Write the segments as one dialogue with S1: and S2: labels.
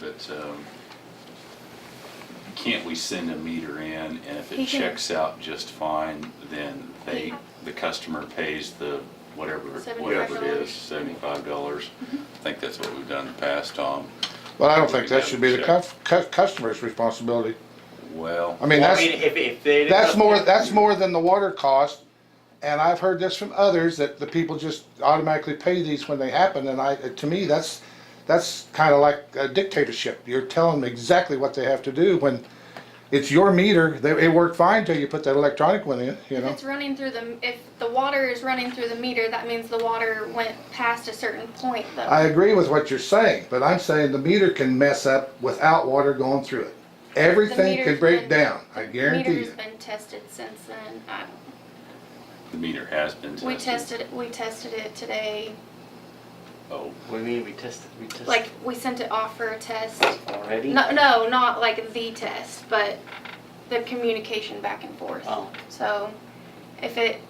S1: But um, can't we send a meter in and if
S2: He
S1: it
S2: can-
S1: checks out just fine, then they,
S2: He-
S1: the customer pays the whatever,
S2: $75?
S1: whatever it is, seventy-five dollars?
S2: Mm-hmm.
S1: I think that's what we've done in the past, Tom.
S3: Well, I don't think that should be the cu- cu- customer's responsibility. I
S1: Well,
S3: mean,
S4: Well,
S3: that's,
S4: I mean, if, if they.
S3: that's more, that's more than the water cost. And I've heard this from others, that the people just automatically pay these when they happen, and I, to me, that's, that's kinda like a dictatorship. You're telling them exactly what they have to do when it's your meter, they, it worked fine till you put that electronic one in, you
S2: If
S3: know?
S2: it's running through the, if the water is running through the meter, that means the water went past a certain point though.
S3: I agree with what you're saying, but I'm saying the meter can mess up without water going through it. Everything can
S2: meter's
S3: break
S2: been-
S3: down, I guarantee
S2: Meter's
S3: you.
S2: been tested since then. I-
S1: the meter has been tested.
S2: We tested, it- we tested it today,
S1: Oh,
S4: We mean, we tested, we tested.
S2: like, we sent it off for a test.
S4: Already?
S2: No, no, not like the test, but the communication back and forth.
S4: Oh.
S2: So if it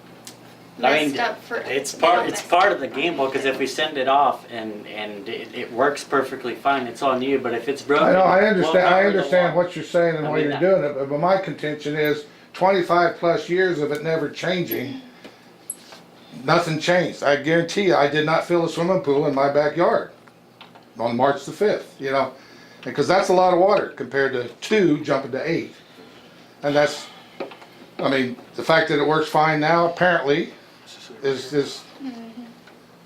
S4: I mean,
S2: messed up for.
S4: It's
S2: it
S4: part,
S2: all
S4: it's
S2: messed
S4: part
S2: up.
S4: of the gamble, cause if we send it off and, and it, it works perfectly fine, it's on you, but if it's broken.
S3: I know, I
S4: we'll
S3: understand, I
S4: cover the
S3: understand
S4: wa-
S3: what you're saying and
S4: I
S3: why
S4: mean,
S3: you're
S4: I-
S3: doing it, but- but my contention is twenty-five plus years of it never changing, nothing changed. I guarantee you, I did not fill a swimming pool in my backyard on March the fifth, you know? Because that's a lot of water compared to two jumping to eight. And that's, I mean, the fact that it works fine now apparently is, is,
S4: Mm-hmm.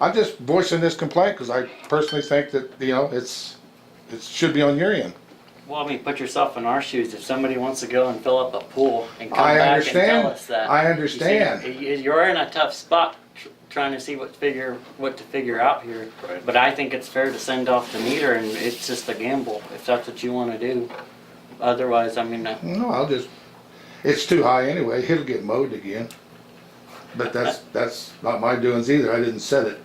S3: I'm just voicing this complaint because I personally think that, you know, it's, it should be on your end.
S4: Well, I mean, put yourself in our shoes, if somebody wants to go and fill up a pool and come
S3: I
S4: back and
S3: understand.
S4: tell us that.
S3: I
S4: you see,
S3: understand.
S4: you- You're in a tough spot tr- trying to see what figure, what to figure out here.
S1: Right.
S4: But I think it's fair to send off the meter and it's just a gamble, if that's what you wanna do. Otherwise, I mean, uh,
S3: No, I'll just, it's too high anyway, it'll get mowed again. But that's, that's not my doings either, I didn't set it.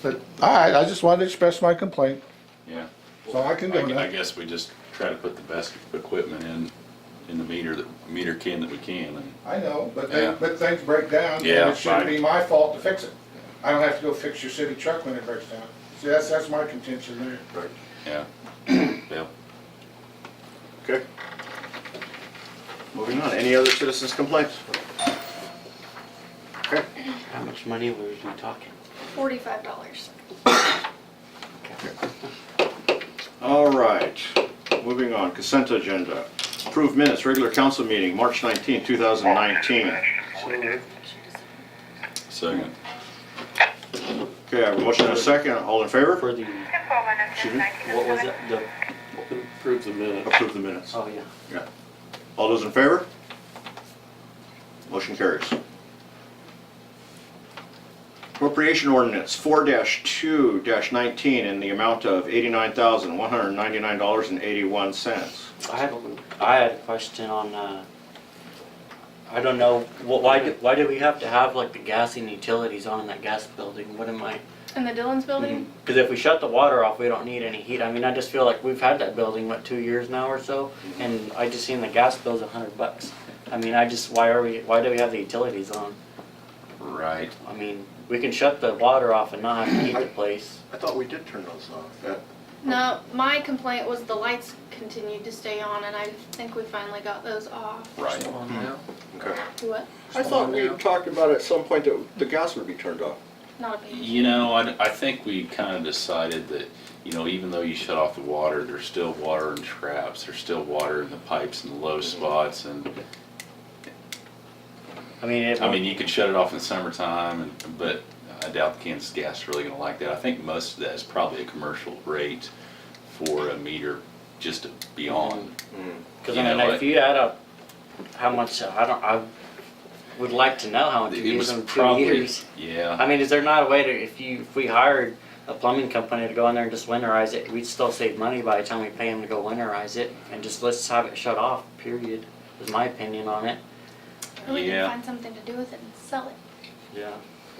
S3: But, alright, I just wanted to express my complaint.
S1: yeah.
S3: So I can do
S1: I
S3: that.
S1: guess we just try to put the best equipment in, in the meter, that meter can that we can and.
S3: I know, but
S1: Yeah.
S3: but things break down, and
S1: Yeah, right.
S3: my fault to fix it. I don't have to go fix your city truck when it breaks down. See, that's, that's my contention there.
S1: Yeah. Yep.
S5: Okay. Moving on, any other citizens' complaints? Okay,
S4: how much money were we talking?
S2: Forty-five dollars.
S5: all right, moving on, consent agenda. Approved minutes, regular council meeting, March 19, 2019.
S1: Second.
S5: Okay, I have a motion and a second, all in favor?
S6: For the,
S5: Excuse me?
S6: what was it, the, approve the minute.
S5: Approve the minutes.
S4: Oh, yeah.
S5: Yeah. All those in favor? Motion carries. Appropriation ordinance four two nineteen in the amount of eighty-nine thousand, one hundred and ninety-nine dollars and eighty-one cents.
S4: I had, a- I had a question on, uh, I don't know, wh- why, do- why do we have to have like the gas and utilities on in that gas building? What am I?
S2: In the Dillon's building?
S4: Because if we shut the water off, we don't need any heat. I mean, I just feel like we've had that building, what, two years now or so?
S6: Mm-hmm.
S4: And I just seen the gas bill's a hundred bucks. I mean, I just, why are we, why do we have the utilities on?
S1: Right.
S4: I mean, we can shut the water off and not have to heat the place.
S5: I thought we did turn those off. Yeah.
S2: No, my complaint was the lights continued to stay on and I think we finally got those off.
S1: Right.
S5: Okay.
S2: What?
S5: I thought we talked about at some point that the gas would be turned off.
S2: Not a big.
S1: You know, I, I think we kind of decided that, you know, even though you shut off the water, there's still water in traps, there's still water in the pipes and the low
S4: Mm-hmm.
S1: spots, and,
S4: I mean, it,
S1: I mean, you could shut it off in summertime, and, but I doubt the Kansas Gas is really gonna like that. I think most of that is probably a commercial rate for a meter just to be on.
S4: because
S1: you
S4: I mean,
S1: know,
S4: if you add up how much, I don't, I would like to know how much we
S1: It
S4: use
S1: was
S4: in two
S1: probably,
S4: years. I
S1: yeah,
S4: mean, is there not a way to, if you, if we hired a plumbing company to go in there and just winterize it, we'd still save money by the time we pay them to go winterize it, and just let's have it shut off, period, is my opinion on it.
S2: Or we
S1: Yeah.
S2: can find something to do with it and sell it.
S4: Yeah.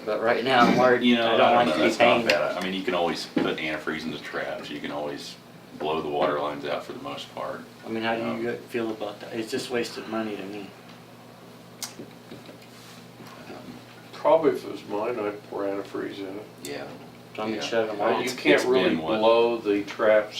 S4: But right now, I'm worried,
S1: you know,
S4: I don't like
S1: know,
S4: to be
S1: that's not
S4: paying.
S1: bad. I mean, you can always put antifreeze in the traps, you can always blow the water lines out for the most part.
S4: I mean, how do you feel about that? It's just wasted money to me.
S7: Probably if it was mine, I'd pour antifreeze in it.
S1: Yeah.
S8: Somebody
S7: Yeah.
S8: shut them
S7: Uh,
S8: off.
S7: You
S1: It's-
S7: can't
S1: it's
S7: really
S1: been what-
S7: blow the traps